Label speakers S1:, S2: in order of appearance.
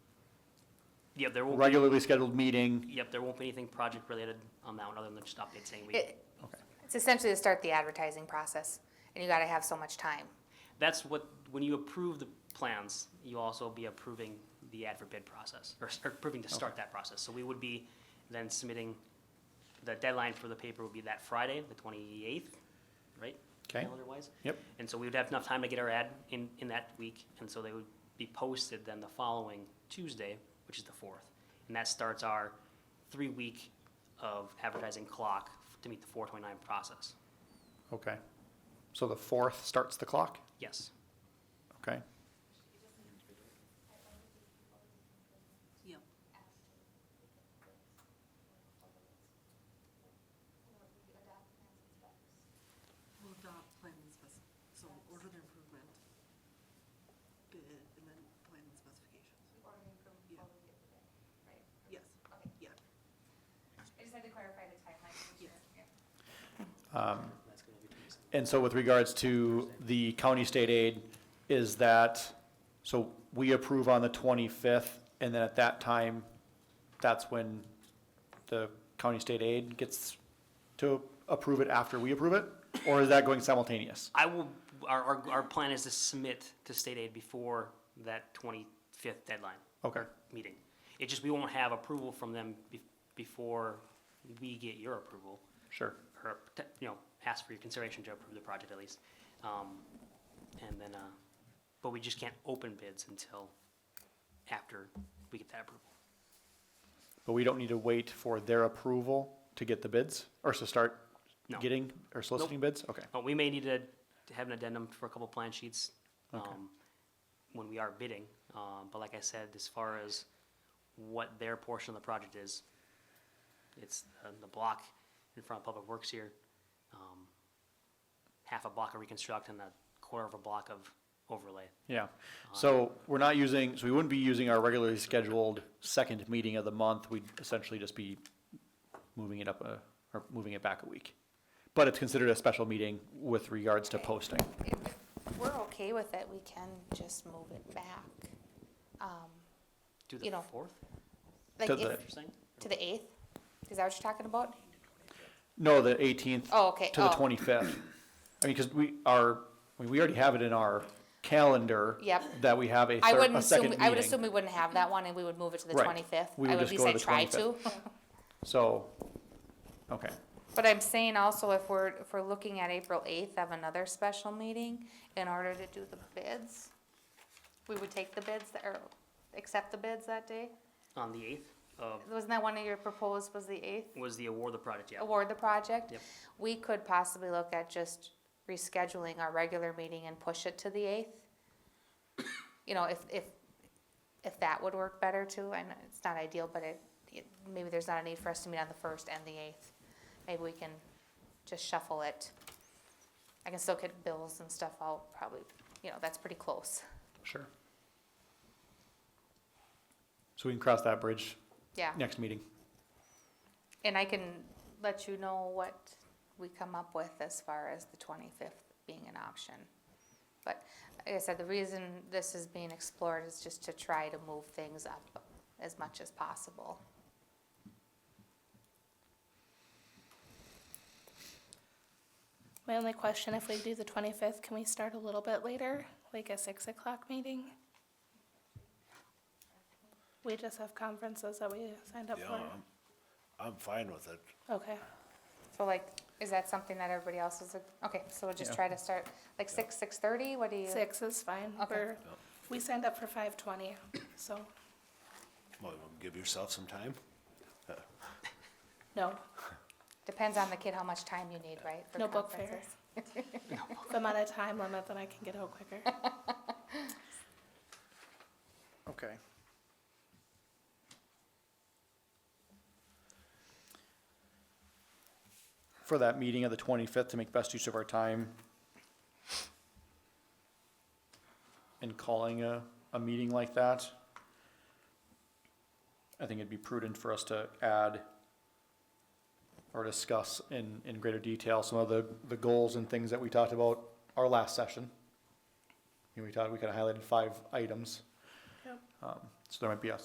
S1: Yep, there won't be,
S2: regularly scheduled meeting?
S1: yep, there won't be anything project related on that one, other than just updates saying we,
S3: It-
S2: Okay.
S3: It's essentially to start the advertising process, and you gotta have so much time.
S1: that's what, when you approve the plans, you also be approving the ad for bid process, or start approving to start that process. So we would be then submitting, the deadline for the paper would be that Friday, the twenty-eighth, right?
S2: Okay.
S1: Calendar-wise.
S2: Yep.
S1: And so we would have enough time to get our ad in, in that week, and so they would be posted then the following Tuesday, which is the fourth. And that starts our three-week of advertising clock to meet the four twenty-nine process.
S2: Okay. So the fourth starts the clock?
S1: Yes,
S2: Okay.
S4: Yep. We'll adopt plan and spec, so order the improvement, bid, and then plan and specifications. Yeah. Yes, yeah,
S3: I just had to clarify the timeline.
S4: yes.
S2: And so with regards to the county state aid, is that, so we approve on the twenty-fifth, and then at that time, that's when the county state aid gets to approve it after we approve it? Or is that going simultaneous?
S1: I will, our, our, our plan is to submit to state aid before that twenty-fifth deadline
S2: Okay,
S1: meeting. It just, we won't have approval from them be- before we get your approval.
S2: sure.
S1: or, te- you know, ask for your consideration to approve the project at least. Um, And then, uh, but we just can't open bids until after we get that approval.
S2: But we don't need to wait for their approval to get the bids, or to start
S1: No.
S2: getting or soliciting bids? Okay,
S1: But we may need to to have an addendum for a couple plan sheets um, when we are bidding. Um, But like I said, as far as what their portion of the project is, it's uh, the block in front of Public Works here, um, half a block of reconstruct and a quarter of a block of overlay.
S2: yeah. Um, So we're not using, so we wouldn't be using our regularly scheduled second meeting of the month. We'd essentially just be moving it up a, or moving it back a week. But it's considered a special meeting with regards to posting.
S3: If we're okay with it, we can just move it back. Um,
S1: Do
S3: You
S1: the
S3: know,
S1: fourth?
S3: Like,
S2: To
S3: if-
S2: the-
S1: Interesting.
S3: to the eighth? Is that what you're talking about?
S2: No, the eighteenth
S3: Oh, okay.
S2: to the
S3: Oh.
S2: twenty-fifth. I mean, because we are, I mean, we already have it in our calendar.
S3: Yep.
S2: That we have a
S3: I
S2: third,
S3: wouldn't
S2: a
S3: assume,
S2: second
S3: I would
S2: meeting.
S3: assume we wouldn't have that one, and we would move it to the
S2: Right.
S3: twenty-fifth.
S2: We
S3: I
S2: would
S3: would
S2: just
S3: at
S2: go
S3: least
S2: to
S3: I
S2: the
S3: try to.
S2: So, okay,
S3: But I'm saying also, if we're, if we're looking at April eighth of another special meeting, in order to do the bids, we would take the bids, that- or accept the bids that day?
S1: On the eighth of,
S3: Wasn't that one of your proposed was the eighth?
S1: was the award of the project, yeah.
S3: award the project.
S1: Yep.
S3: We could possibly look at just rescheduling our regular meeting and push it to the eighth. You know, if, if, if that would work better too, and it's not ideal, but it, it, maybe there's not a need for us to meet on the first and the eighth. Maybe we can just shuffle it. I can still get bills and stuff out, probably, you know, that's pretty close,
S2: sure. So we can cross that bridge
S3: yeah.
S2: next meeting.
S3: And I can let you know what we come up with as far as the twenty-fifth being an option. But like I said, the reason this is being explored is just to try to move things up as much as possible.
S5: My only question, if we do the twenty-fifth, can we start a little bit later, like a six o'clock meeting? We just have conferences that we signed up
S6: Yeah,
S5: for.
S6: I'm fine with it.
S5: Okay,
S3: So like, is that something that everybody else is, okay, so we'll just
S2: Yeah.
S3: try to start, like six, six-thirty, what do you?
S5: six is fine.
S3: Okay.
S5: We're, we signed up for five twenty, so,
S6: Well, give yourself some time.
S5: no,
S3: Depends on the kid how much time you need, right? for
S5: no book fair.
S3: conferences?
S5: The amount of time limit that I can get out quicker.
S2: Okay. For that meeting of the twenty-fifth, to make best use of our time. And calling a, a meeting like that. I think it'd be prudent for us to add or discuss in, in greater detail some of the, the goals and things that we talked about our last session. You know, we talked, we kind of highlighted five items.
S5: Yep.
S2: Um, So there might be a